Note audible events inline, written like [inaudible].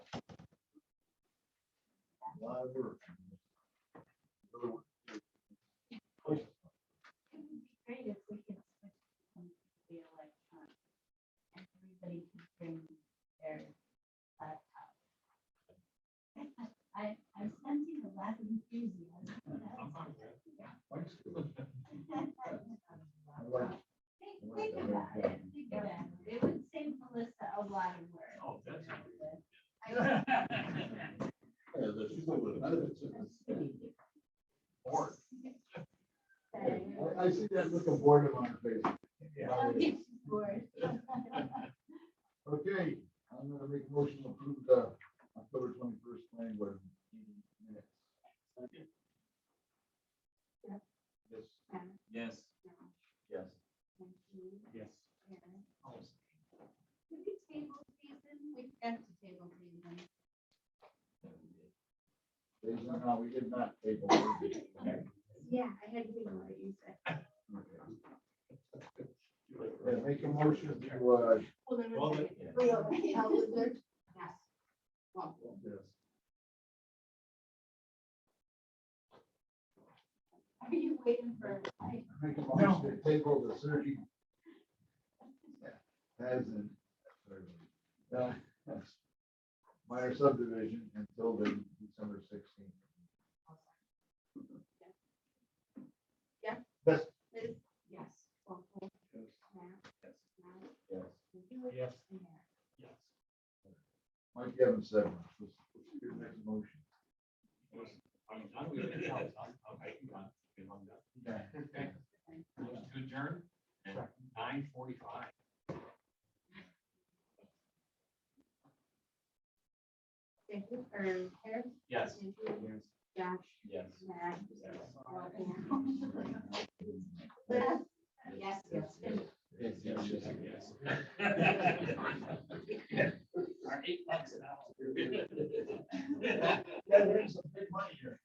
live or? Great if we could switch from the electronic. and um, Everybody can bring their laptop. I, I'm sensing a lot of enthusiasm. [laughs] Think, think about it, think about it. It would save Melissa a lot of work. [laughs] Oh, that's. I- Or. I see that look of boredom on her face. [laughs] Don't get bored. Okay, I'm gonna make a motion to approve the October twenty-first planning board meeting minutes. Yes. Yes. Yes. Yes. Oh, We could table season, we've got to table season. Jason, no, we did not table. it. Okay. Yeah, I had to ignore you said. Yeah, Make a motion to, uh, Well, then- Yes. yes. Are you waiting for? I- Make a motion to table the surgery. As in. uh, Minor subdivision until the December sixteenth. Liz? Yes. Waffle, Yes. Matt, Matt, Yes. you, Yes. and Matt. Yes. Mike Evans said, let's, let's do the next motion. I mean, I'm gonna, I'm, I'm, I'm done. Yeah. Motion to adjourn at nine forty-five. Thank you, or Eric? Yes. thank you, Josh, Yes. Matt. Yes. Waffle. Liz? Yes, yes. Yes, yes, yes, Yes. [laughs] [laughs] Our eight bucks an hour.